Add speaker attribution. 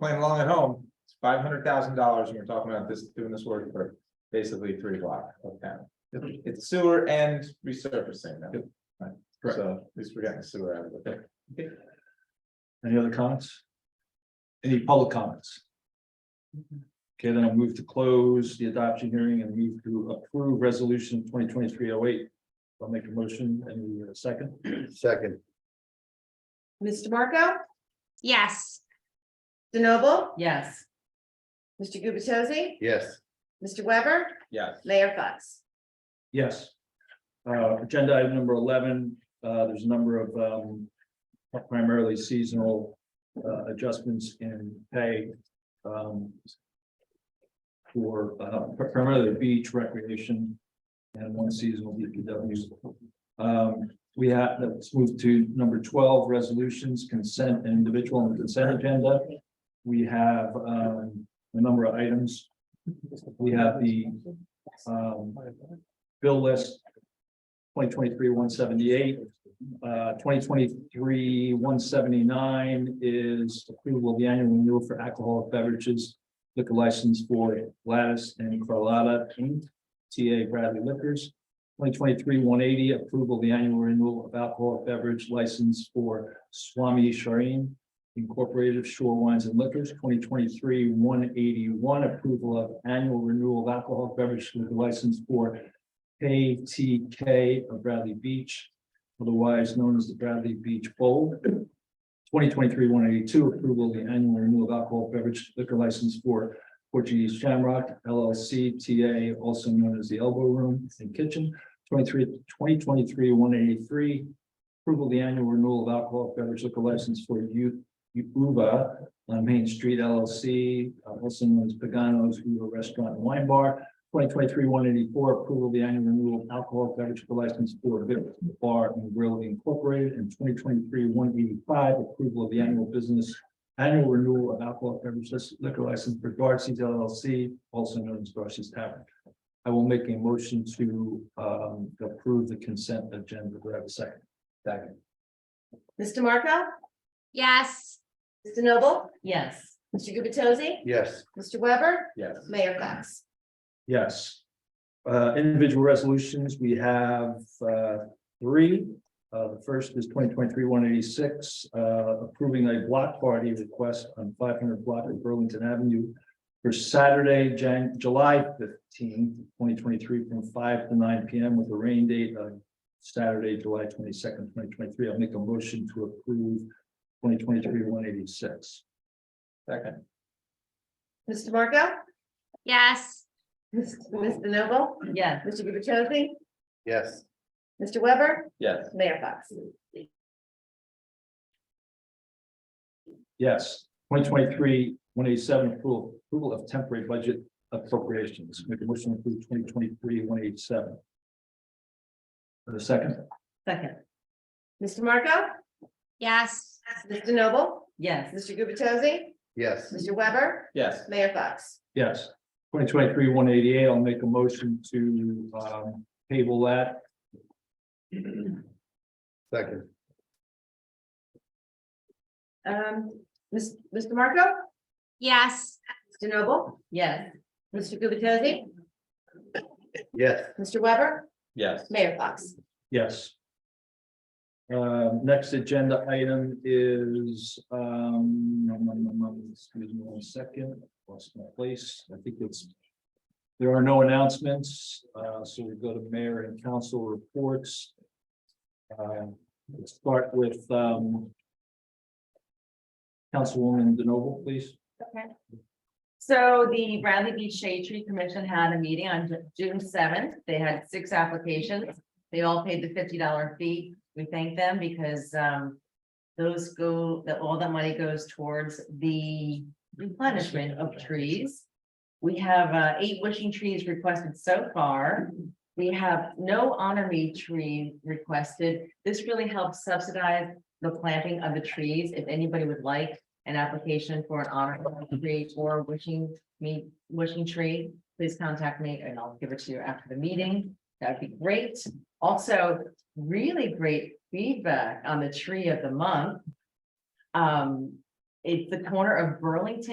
Speaker 1: playing along at home, it's five hundred thousand dollars, and we're talking about this, doing this work for basically three blocks of town. It's sewer and resurfacing now. Right.
Speaker 2: Correct.
Speaker 1: So at least we're getting sewer out of it.
Speaker 2: Any other comments? Any public comments? Okay, then I'll move to close the adoption hearing and move to approve resolution twenty twenty-three oh eight. I'll make a motion and a second.
Speaker 3: Second,
Speaker 4: Ms. DeMarco,
Speaker 5: Yes,
Speaker 4: DeNoble,
Speaker 6: yes,
Speaker 4: Mr. Gubatose,
Speaker 3: yes,
Speaker 4: Mr. Weber,
Speaker 1: Yes,
Speaker 4: Mayor Fox.
Speaker 2: Yes. Uh, agenda item number eleven, uh, there's a number of, um, primarily seasonal, uh, adjustments in pay. um, For, uh, primarily the beach recreation and one seasonal DPW. Um, we have, let's move to number twelve, resolutions, consent, and individual and consent agenda. We have, um, a number of items. We have the, um, bill list. Twenty twenty-three, one seventy-eight, uh, twenty twenty-three, one seventy-nine is approval of the annual renewal for alcoholic beverages. Liquor license for Gladys and Carlotta, Inc., TA Bradley Liquors. Twenty twenty-three, one eighty, approval of the annual renewal of alcoholic beverage license for Swami Shireen Incorporated of Shore Wines and Liquors, twenty twenty-three, one eighty-one, approval of annual renewal of alcoholic beverage liquor license for KTK of Bradley Beach, otherwise known as the Bradley Beach Bowl. Twenty twenty-three one eighty-two, approval of the annual renewal of alcohol beverage liquor license for Portuguese Shamrock LLC TA, also known as the Elbow Room and Kitchen. 23 2023 one eighty-three, approval of the annual renewal of alcohol beverage liquor license for U Uva on Main Street LLC, uh, also known as Pagano's Uva Restaurant and Wine Bar twenty twenty-three, one eighty-four, approval of the annual renewal of alcohol beverage license for Vic Bar and Grill Incorporated, and twenty twenty-three, one eighty-five, approval of the annual business annual renewal of alcohol beverage liquor license for Darcy's LLC, also known as Darcy's Tavern. I will make a motion to um approve the consent agenda. Do I have a second? Second.
Speaker 4: Ms. DeMarco,
Speaker 5: yes,
Speaker 4: Ms. DeNoble,
Speaker 6: yes,
Speaker 4: Mr. Gubatose,
Speaker 3: yes,
Speaker 4: Mr. Weber,
Speaker 1: yes.
Speaker 4: Mayor Fox.
Speaker 2: Yes. Uh, individual resolutions, we have, uh, three. Uh, the first is twenty twenty-three one eighty-six, uh, approving a block party request on five hundred block of Burlington Avenue for Saturday, Jan, July fifteenth, twenty twenty-three, from five to nine P M with a rain date of Saturday, July twenty-second, twenty twenty-three. I'll make a motion to approve twenty twenty-three one eighty-six.
Speaker 1: Second,
Speaker 4: Ms. DeMarco,
Speaker 5: yes,
Speaker 4: Ms. Ms. DeNoble,
Speaker 6: yes,
Speaker 4: Mr. Gubatose,
Speaker 3: yes,
Speaker 4: Mr. Weber,
Speaker 1: yes,
Speaker 4: Mayor Fox.
Speaker 2: Yes, twenty twenty-three, one eighty-seven, approval, approval of temporary budget appropriations, make a motion to approve twenty twenty-three, one eighty-seven. For the second,
Speaker 6: second,
Speaker 4: Ms. DeMarco,
Speaker 5: yes,
Speaker 4: Ms. DeNoble,
Speaker 6: yes,
Speaker 4: Mr. Gubatose,
Speaker 3: yes,
Speaker 4: Mr. Weber,
Speaker 1: yes,
Speaker 4: Mayor Fox.
Speaker 2: yes, twenty twenty-three, one eighty-eight, I'll make a motion to, um, table that,
Speaker 3: second,
Speaker 4: Um, Ms. Ms. DeMarco,
Speaker 5: yes,
Speaker 4: Ms. DeNoble,
Speaker 6: yes,
Speaker 4: Mr. Gubatose,
Speaker 3: yes,
Speaker 4: Mr. Weber,
Speaker 1: yes.
Speaker 4: Mayor Fox.
Speaker 2: yes. Um, next agenda item is, um, nom, nom, nom, nom, excuse me one second, lost my place, I think it's There are no announcements, uh, so we go to mayor and council reports. Um, Let's start with um, Councilwoman DeNoble, please.
Speaker 6: So the Bradley Beach Shade Tree Commission had a meeting on Ju- June seventh. They had six applications. They all paid the fifty dollar fee. We thank them because um. Those go, that all that money goes towards the replenishment of trees. We have uh eight wishing trees requested so far. We have no honorary tree requested. This really helps subsidize the planting of the trees. If anybody would like an application for an honorary tree or wishing me, wishing tree, please contact me and I'll give it to you after the meeting. That'd be great. Also, really great feedback on the tree of the month. Um, it's the corner of Burlington